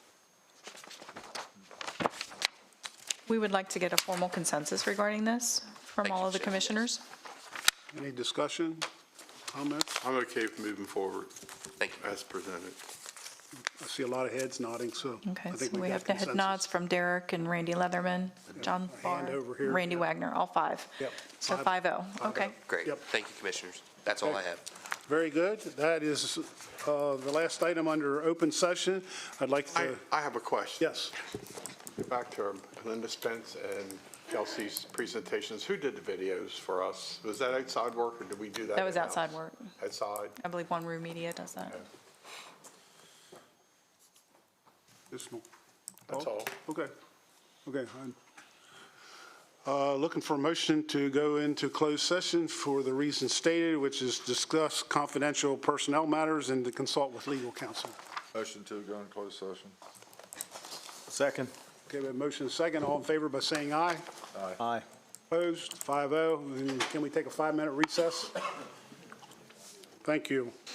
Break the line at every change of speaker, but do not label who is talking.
We would like to get a formal consensus regarding this from all of the commissioners.
Any discussion, comments?
I'm okay with moving forward
Thank you.
as presented.
I see a lot of heads nodding, so
Okay,
I
so
think
we
we
have the
got
head
consensus.
nods from Derek and Randy Leatherman, John
A
Barr,
hand over here.
Randy
Yep.
Wagner, all five.
Yep.
So
Five- oh.
5-0, okay.
Great.
Yep.
Thank you, commissioners. That's all I have.
Very good. That is uh, the last item under open session. I'd like
I,
to,
I have a question.
yes,
Back to Linda Spence and Kelsey's presentations. Who did the videos for us? Was that outside work or did we do that?
That was
in-house?
outside work.
Outside?
I believe One Room Media does that.
this one.
That's all.
Okay, okay. fine. Uh, Looking for a motion to go into closed session for the reason stated, which is discuss confidential personnel matters and to consult with legal counsel.
Motion to go in closed session.
Second.
Okay, we have a motion and a second. All in favor by saying aye. oh.
Aye.
Opposed, 5-0. And Can we take a five-minute recess? Thank you.